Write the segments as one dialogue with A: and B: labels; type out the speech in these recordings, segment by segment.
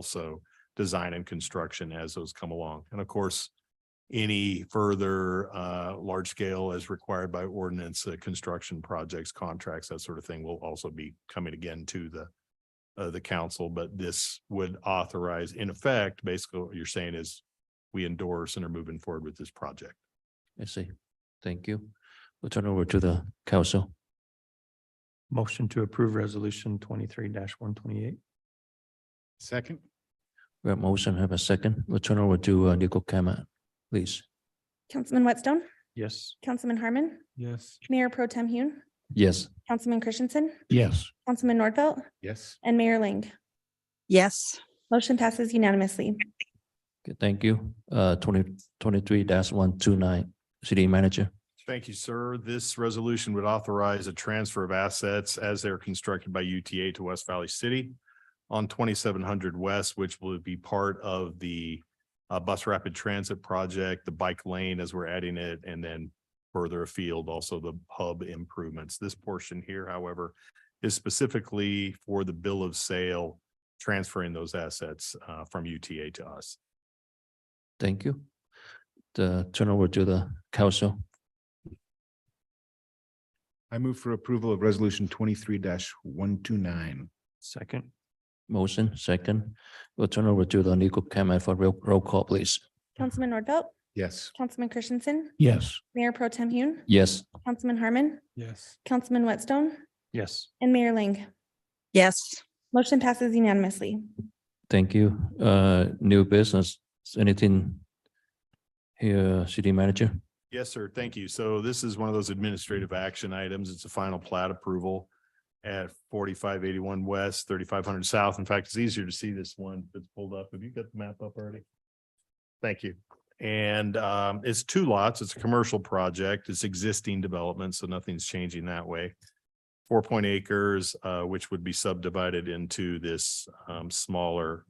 A: also design and construction as those come along. And of course, any further uh large scale as required by ordinance, uh, construction projects, contracts, that sort of thing will also be coming again to the uh the council, but this would authorize, in effect, basically what you're saying is we endorse and are moving forward with this project.
B: I see. Thank you. We'll turn over to the council.
C: Motion to approve resolution twenty-three one twenty-eight.
D: Second,
B: We have motion, have a second. We'll turn over to uh, Nico Kama, please.
E: Councilman Whitstone,
C: Yes.
E: Councilman Harmon,
C: Yes.
E: Mayor Pro Tem Hune,
B: Yes.
E: Councilman Christensen,
B: Yes.
E: Councilman Nordfelt,
D: yes,
E: and Mayor Ling.
F: yes,
E: Motion passes unanimously.
B: Thank you. Uh, twenty twenty-three dash one two nine, city manager.
A: Thank you, sir. This resolution would authorize a transfer of assets as they're constructed by UTA to West Valley City on twenty-seven hundred west, which will be part of the uh, bus rapid transit project, the bike lane as we're adding it, and then further afield, also the hub improvements. This portion here, however, is specifically for the bill of sale, transferring those assets uh, from UTA to us.
B: Thank you. The turn over to the council.
D: I move for approval of resolution twenty-three one two nine.
C: Second,
B: Motion, second. We'll turn over to the Nico Kama for roll, roll call, please.
E: Councilman Nordfelt,
D: Yes,
E: Councilman Christensen,
B: Yes.
E: Mayor Pro Tem Hune,
B: Yes.
E: Councilman Harmon,
C: yes.
E: Councilman Whitstone,
C: Yes.
E: and Mayor Ling.
F: yes,
E: Motion passes unanimously.
B: Thank you. Uh, new business, anything here, city manager?
A: Yes, sir. Thank you. So this is one of those administrative action items. It's a final plat approval at forty-five eighty-one west, thirty-five hundred south. In fact, it's easier to see this one that's pulled up. Have you got the map up already? Thank you. And um, it's two lots. It's a commercial project. It's existing development, so nothing's changing that way. Four point acres, uh, which would be subdivided into this um, smaller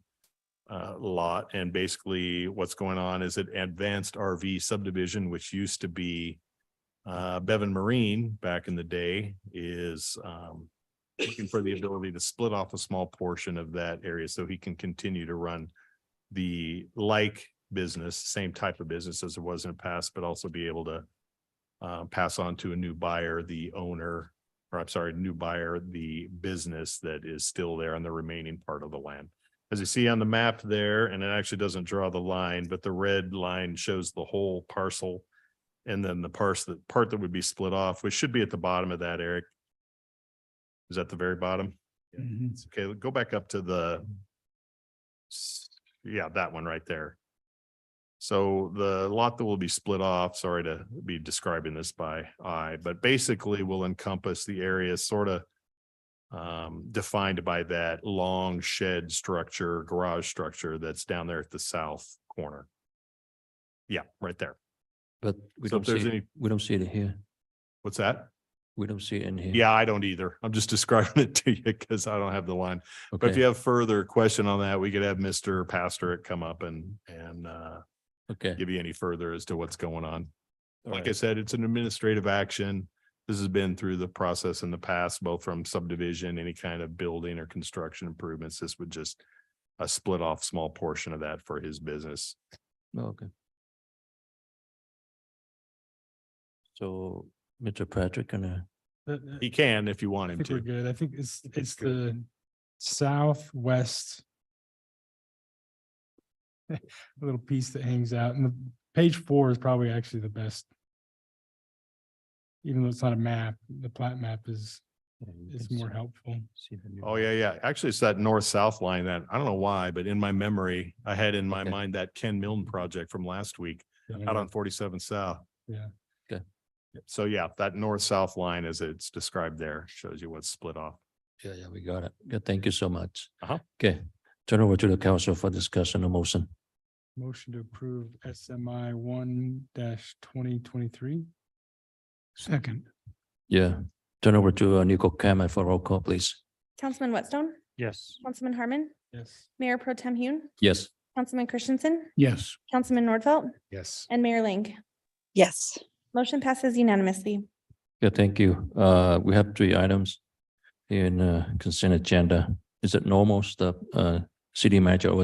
A: uh, lot. And basically what's going on is an advanced RV subdivision, which used to be uh, Bevan Marine back in the day is um, looking for the ability to split off a small portion of that area so he can continue to run the like business, same type of business as it was in the past, but also be able to uh, pass on to a new buyer, the owner, or I'm sorry, new buyer, the business that is still there on the remaining part of the land as you see on the map there, and it actually doesn't draw the line, but the red line shows the whole parcel. And then the parse, the part that would be split off, which should be at the bottom of that, Eric. Is that the very bottom?
C: Mhm.
A: It's Okay, go back up to the. s- Yeah, that one right there. So the lot that will be split off, sorry to be describing this by eye, but basically will encompass the area sort of um, defined by that long shed structure, garage structure that's down there at the south corner. Yeah, right there.
B: But we
A: So if
B: don't see,
A: there's
B: it-
A: any-
B: we don't see it here.
A: What's that?
B: We don't see it in here.
A: Yeah, I don't either. I'm just describing it to you because I don't have the line. But if you
B: Okay,
A: have further question on that, we could have Mr. Pastor come up and, and, uh,
B: okay.
A: give you any further as to what's going on.
B: All
A: Like I
B: right.
A: said, it's an administrative action. This has been through the process in the past, both from subdivision, any kind of building or construction improvements. This would just a split off small portion of that for his business.
B: Oh, Okay. So, Mr. Patrick, uh, can I?
A: He can if you want
G: I
A: him
G: think we're
A: to.
G: good. I think it's, it's
A: good.
G: the southwest. Little piece that hangs out and the page four is probably actually the best. Even though it's not a map, the plat map is, is more helpful.
A: Oh, yeah, yeah. Actually, it's that north-south line that, I don't know why, but in my memory, I had in my
B: Okay.
A: mind that Ken Milne project from last week out on forty-seven south.
G: Yeah.
B: Okay.
A: So yeah, that north-south line as it's described there shows you what's split off.
B: Yeah, yeah, we got it. Good, thank you so much.
A: Uh-huh.
B: Okay, turn over to the council for discussion and motion.
G: Motion to approve SMI one dash twenty twenty-three.
C: Second.
B: Yeah, turn over to uh, Nico Kama for roll call, please.
E: Councilman Whitstone,
C: Yes.
E: Councilman Harmon,
G: Yes.
E: Mayor Pro Tem Hune,
B: Yes.
E: Councilman Christensen,
C: Yes.
E: Councilman Nordfelt,
D: yes,
E: and Mayor Ling.
F: yes.
E: Motion passes unanimously.
B: Yeah, thank you. Uh, we have three items in uh consent agenda. Is it normal stuff, uh, City Manager over